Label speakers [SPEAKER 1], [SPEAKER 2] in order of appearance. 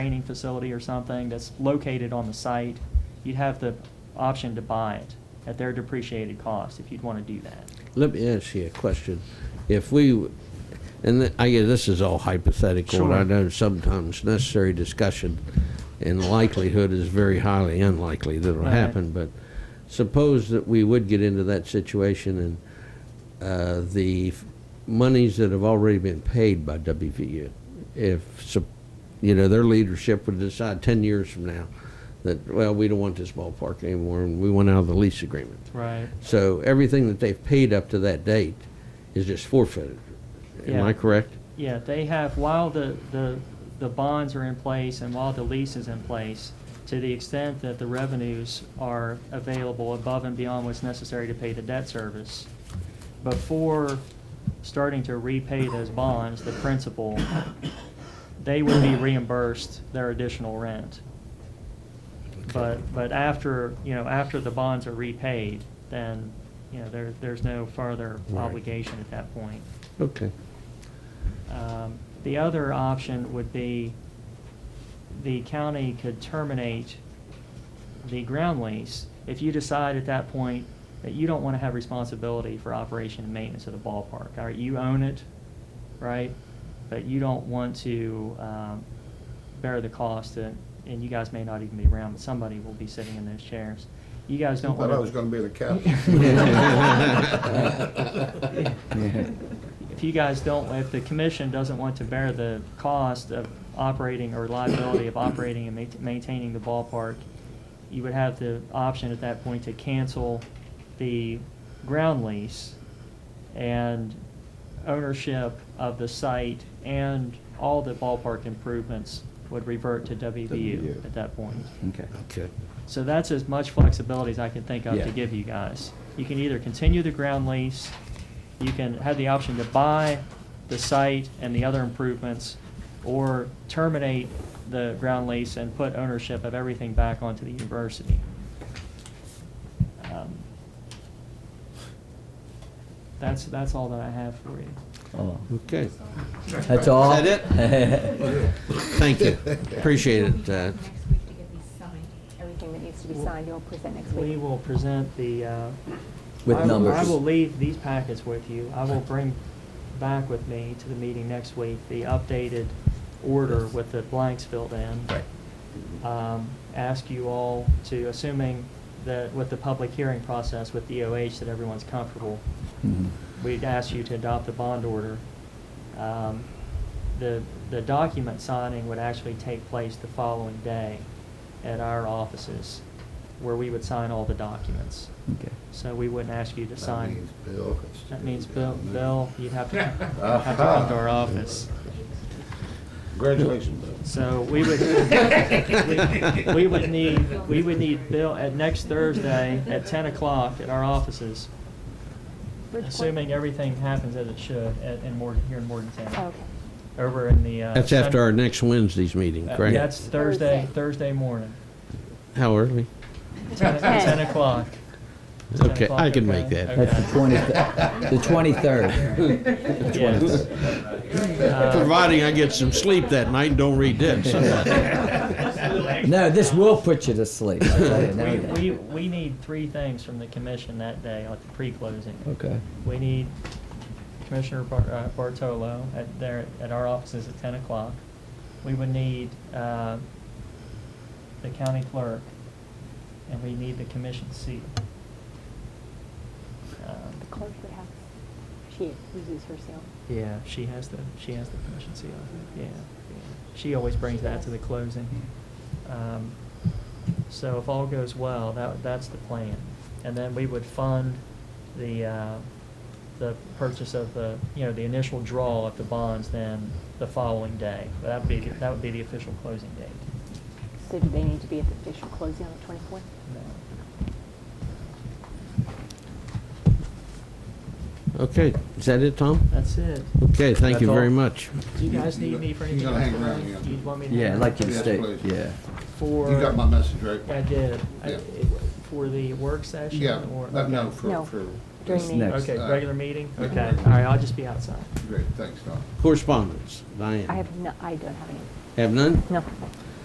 [SPEAKER 1] training facility or something that's located on the site, you'd have the option to buy it at their depreciated cost if you'd want to do that.
[SPEAKER 2] Let me ask you a question. If we, and th- I guess this is all hypothetical, and I
[SPEAKER 1] Sure.
[SPEAKER 2] know sometimes necessary discussion and likelihood is very highly unlikely that it'll
[SPEAKER 1] Right.
[SPEAKER 2] happen, but suppose that we would get into that situation and uh, the f- monies that have already been paid by WVU, if, sup- you know, their leadership would decide 10 years from now that, well, we don't want this ballpark anymore, and we want out of the lease agreement.
[SPEAKER 1] Right.
[SPEAKER 2] So everything that they've paid up to that date is just forfeited. Am I
[SPEAKER 1] Yeah.
[SPEAKER 2] correct?
[SPEAKER 1] Yeah, they have, while the, the, the bonds are in place and while the lease is in place, to the extent that the revenues are available above and beyond what's necessary to pay the debt service, before starting to repay those bonds, the principal, they would be reimbursed their additional rent. But, but after, you know, after the bonds are repaid, then, you know, there, there's no further
[SPEAKER 2] Right.
[SPEAKER 1] obligation at that point.
[SPEAKER 2] Okay.
[SPEAKER 1] Um, The other option would be the county could terminate the ground lease if you decide at that point that you don't want to have responsibility for operation and maintenance of the ballpark. All right, you own it, right? But you don't want to um, bear the cost, and and you guys may not even be around, but somebody will be sitting in those chairs. You guys don't
[SPEAKER 3] Thought
[SPEAKER 1] want
[SPEAKER 3] I
[SPEAKER 1] to.
[SPEAKER 3] was gonna be the captain.
[SPEAKER 4] Yeah.
[SPEAKER 1] if you guys don't, if the commission doesn't want to bear the cost of operating or liability of operating and ma- maintaining the ballpark, you would have the option at that point to cancel the ground lease and ownership of the site and all the ballpark improvements would revert to WVU
[SPEAKER 4] WVU.
[SPEAKER 1] at that point.
[SPEAKER 4] Okay.
[SPEAKER 2] Okay.
[SPEAKER 1] So that's as much flexibility as I can think of
[SPEAKER 4] Yeah.
[SPEAKER 1] to give you guys. You can either continue the ground lease, you can have the option to buy the site and the other improvements, or terminate the ground lease and put ownership of everything back onto the university. Um, That's, that's all that I have for you.
[SPEAKER 4] Oh,
[SPEAKER 2] Okay.
[SPEAKER 4] That's all?
[SPEAKER 2] Is that Thank you. Appreciate it. uh,
[SPEAKER 5] Next week to get these signed. Everything that needs to be signed, you'll present next week.
[SPEAKER 1] We will present the, uh,
[SPEAKER 4] With
[SPEAKER 1] I will-
[SPEAKER 4] numbers.
[SPEAKER 1] I will leave these packets with you. I will bring back with me to the meeting next week, the updated order with the blanks filled in.
[SPEAKER 4] Right.
[SPEAKER 1] Um, Ask you all to, assuming that with the public hearing process with DOH, that everyone's comfortable,
[SPEAKER 4] Mhm.
[SPEAKER 1] we'd ask you to adopt the bond order. Um, The, the document signing would actually take place the following day at our offices, where we would sign all the documents.
[SPEAKER 4] Okay.
[SPEAKER 1] So we wouldn't ask you to sign.
[SPEAKER 3] That means Bill.
[SPEAKER 1] That means Bill, Bill, you'd have to, have to
[SPEAKER 3] Uh-huh.
[SPEAKER 1] come to our office.
[SPEAKER 3] Congratulations, Bill.
[SPEAKER 1] So we would, we- we would need, we would need Bill at next Thursday at ten o'clock at our offices,
[SPEAKER 5] Which one? Oh,
[SPEAKER 1] assuming everything happens as it should at, in Morgan, here in Morgantown,
[SPEAKER 5] Okay.
[SPEAKER 1] over in the. uh,
[SPEAKER 2] That's after our
[SPEAKER 1] Sun-
[SPEAKER 2] next Wednesday's meeting,
[SPEAKER 1] uh,
[SPEAKER 2] correct?
[SPEAKER 1] That's Thursday,
[SPEAKER 5] Thursday.
[SPEAKER 1] Thursday morning,
[SPEAKER 2] How early?
[SPEAKER 1] ten ten o'clock. 10
[SPEAKER 2] Okay,
[SPEAKER 1] o'clock,
[SPEAKER 2] I can
[SPEAKER 1] okay?
[SPEAKER 2] make that.
[SPEAKER 1] Okay.
[SPEAKER 4] That's the 20th, the 23rd.
[SPEAKER 1] Yes. Uh,
[SPEAKER 2] Providing I get some sleep that night and don't read this.
[SPEAKER 4] No, this will put you to sleep. I'll tell you
[SPEAKER 1] We,
[SPEAKER 4] now.
[SPEAKER 1] we, we need three things from the commission that day, like the pre-closing.
[SPEAKER 4] Okay.
[SPEAKER 1] We need Commissioner Bar- uh, Bartolo at their, at our offices at ten o'clock. We would need, uh, the county clerk, and we need the commission seat. Um,
[SPEAKER 5] The clerk would have, she uses herself.
[SPEAKER 1] Yeah, she has the, she has the commission seal, I think. yeah. She always brings that to the closing. Um, So if all goes well, that, that's the plan. And then we would fund the, uh, the purchase of the, you know, the initial draw of the bonds then the following day. That would be, the- that would be the official closing date.
[SPEAKER 5] So do they need to be at the official closing on the twenty-fourth?
[SPEAKER 2] Okay, is that it, Tom?
[SPEAKER 1] That's it.
[SPEAKER 2] Okay, thank you
[SPEAKER 4] That's all?
[SPEAKER 2] very much.
[SPEAKER 1] Do you guys need me for
[SPEAKER 3] You
[SPEAKER 1] anything?
[SPEAKER 3] gotta hang
[SPEAKER 1] else?
[SPEAKER 3] around, yeah.
[SPEAKER 1] You want me to? hang
[SPEAKER 4] Yeah, I'd like you to
[SPEAKER 1] around?
[SPEAKER 3] Yes,
[SPEAKER 4] stay,
[SPEAKER 3] please.
[SPEAKER 4] yeah.
[SPEAKER 1] For.
[SPEAKER 3] You got my message, right?
[SPEAKER 1] I did. I-
[SPEAKER 3] Yeah.
[SPEAKER 1] For the work session?
[SPEAKER 3] Yeah,
[SPEAKER 1] or-
[SPEAKER 3] but no,
[SPEAKER 1] okay.
[SPEAKER 5] No.
[SPEAKER 3] for, for.
[SPEAKER 5] During
[SPEAKER 4] It's
[SPEAKER 5] the-
[SPEAKER 4] next.
[SPEAKER 1] Okay,
[SPEAKER 3] Uh,
[SPEAKER 1] regular meeting?
[SPEAKER 3] yeah.
[SPEAKER 1] Okay, all right, I'll just be outside.
[SPEAKER 3] Great, thanks, Tom.
[SPEAKER 2] Correspondence, Diane.
[SPEAKER 5] I have no, I don't have any.
[SPEAKER 2] Have none?
[SPEAKER 5] No.